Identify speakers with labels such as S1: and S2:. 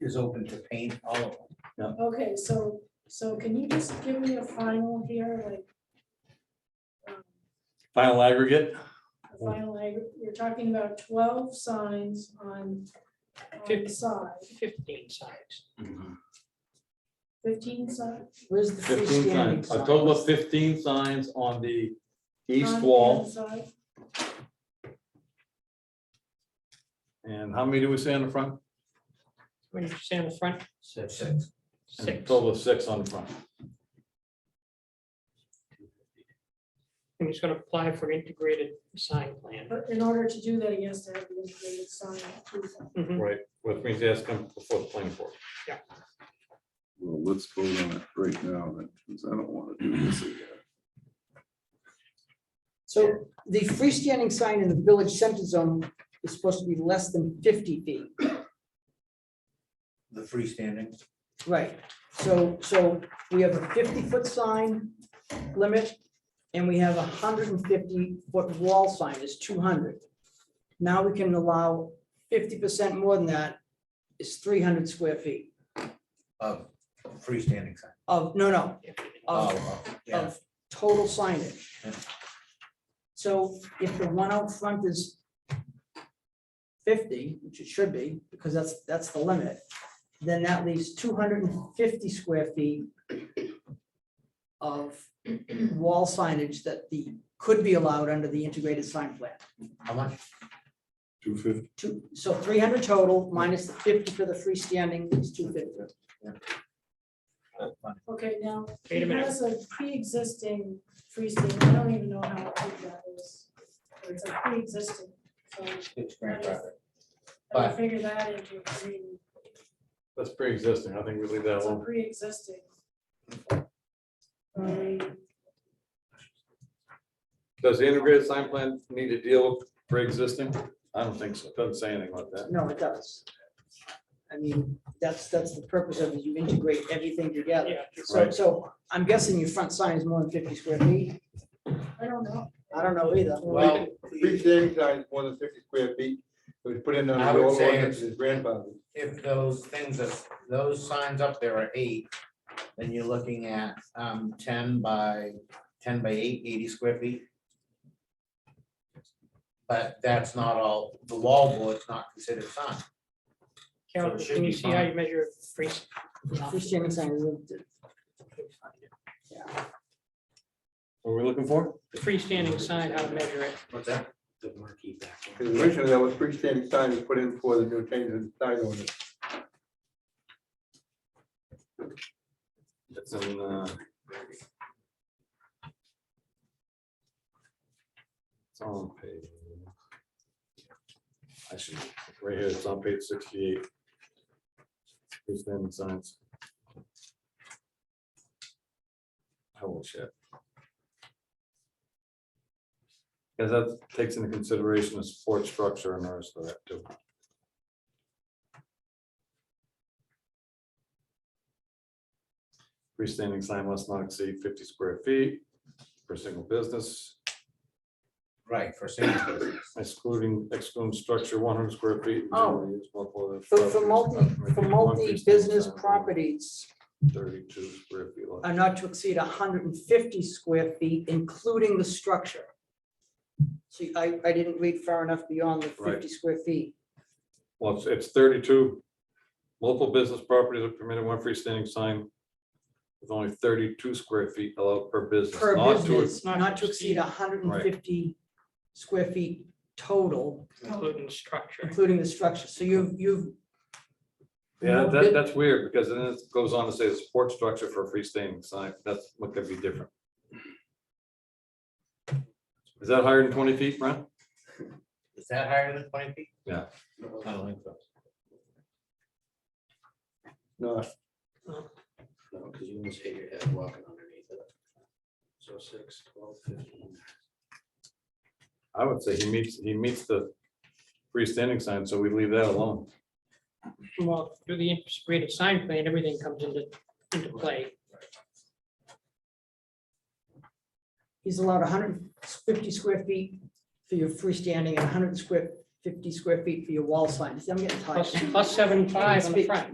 S1: is open to paint all of them.
S2: Okay, so, so can you just give me a final here, like? um,
S3: Final aggregate,
S2: A final, ag- you're talking about twelve signs on, on the
S4: Fifty.
S2: side,
S4: fifteen signs.
S2: fifteen signs.
S5: Where's the
S3: fifteen
S5: freestanding
S3: signs, a
S5: sign?
S3: total of fifteen signs on the east
S2: on the
S3: wall.
S2: inside.
S3: And how many do we say on the front?
S4: When you say on the front,
S1: Six. Six.
S3: And
S4: six,
S3: Total of six on the front.
S4: and he's gonna apply for integrated sign plan.
S2: But in order to do that, he has to have the integrated sign. approval.
S4: Mhm.
S3: Right, which means it has to come before the planning board.
S6: Well, let's vote on it right now, then, because I don't want to do this again.
S5: So the freestanding sign in the village center zone is supposed to be less than fifty feet.
S1: The freestanding,
S5: Right. So, so we have a fifty-foot sign limit, and we have a hundred and fifty-foot wall sign is two hundred. Now we can allow fifty percent more than that is three hundred square feet
S1: of uh, freestanding sign.
S5: of, no, no, of
S1: Oh, oh, yeah.
S5: of total signage.
S1: Yeah.
S5: So if the one out front is fifty, which it should be, because that's, that's the limit, then that leaves two hundred and fifty square feet of wall signage that the, could be allowed under the integrated sign plan.
S1: How much?
S6: Two fifty,
S5: Two, so three hundred total minus the fifty for the freestanding is two fifty.
S2: Okay, now,
S4: Wait
S2: he
S4: a minute.
S2: has a pre-existing freestanding, I don't even know how big that is. but It's a pre-existing, so
S1: It's grandfather.
S2: I
S1: But-
S2: would figure that into, I mean,
S3: That's pre-existing. I think we leave that
S2: it's a
S3: alone.
S2: pre-existing. Um,
S3: Does the integrated sign plan need to deal with pre-existing? I don't think so. It Doesn't say anything like that.
S5: No, it does. I mean, that's, that's the purpose of it, you integrate everything together.
S4: Yeah,
S5: So,
S3: Right.
S5: so I'm guessing your front sign is more than fifty square feet.
S2: I don't know.
S5: I don't know either.
S7: Well, freestanding sign is more than fifty square feet. It was put in on
S1: I
S7: the
S1: would
S7: old
S1: say
S7: ordinance,
S1: it's-
S7: his grandfather.
S1: If those things, if those signs up there are eight, then you're looking at um ten by, ten by eight, eighty square feet. But that's not all, the wall board's not considered sign.
S4: Carol,
S1: So it should
S4: can you
S1: be
S4: see how
S1: fine.
S4: you measure free? s-
S5: Freestanding sign is,
S3: What are we looking for?
S4: Freestanding sign, how to measure it?
S1: What's that?
S7: Because originally that was freestanding sign was put in for the new change in sign ordinance.
S3: It's in, uh. It's on page. I should, right here, it's on page sixty-eight. Freestanding signs. Holy Oh, shit. Cause that takes into consideration the support structure and the rest of that too. Freestanding sign must not exceed fifty square feet per single business.
S1: Right, for single business.
S3: Excluding, excluding structure one hundred square feet.
S5: Oh.
S3: generally used multiple of
S5: for, for
S3: structures,
S5: multi,
S3: not permitted
S5: for
S3: in one freestanding
S5: multi-business
S3: sign,
S5: properties
S3: Thirty-two square feet. lot.
S5: are not to exceed hundred and fifty square feet, including the structure. See, I, I didn't read far enough beyond the
S3: Right.
S5: fifty square feet.
S3: Well, it's, it's thirty-two. Multiple business properties are permitted one freestanding sign with only thirty-two square feet allowed per business.
S5: Per
S3: not to
S5: business,
S4: not
S5: not
S4: to
S5: to exceed hundred and fifty square feet total,
S4: Including structure.
S5: including the structure. So you've, you've
S3: Yeah,
S5: No,
S3: that,
S5: it-
S3: that's weird, because then it goes on to say the support structure for a freestanding sign, that's what could be different. Is that higher than twenty feet, Brent?
S1: Is that higher than twenty feet?
S3: Yeah.
S1: I don't think so.
S7: No,
S8: No, because Uh, you almost hit your head walking underneath it. So six, twelve, fifteen.
S3: I would say he meets, he meets the freestanding sign, so we leave that alone.
S4: Well, through the integrated sign plan, everything comes into, into play.
S5: He's allowed hundred and fifty square feet for your freestanding and hundred square, fifty square feet for your wall sign. See, I'm getting tired.
S4: Oh, Plus, plus seventy-five on the
S5: Speak.
S4: front.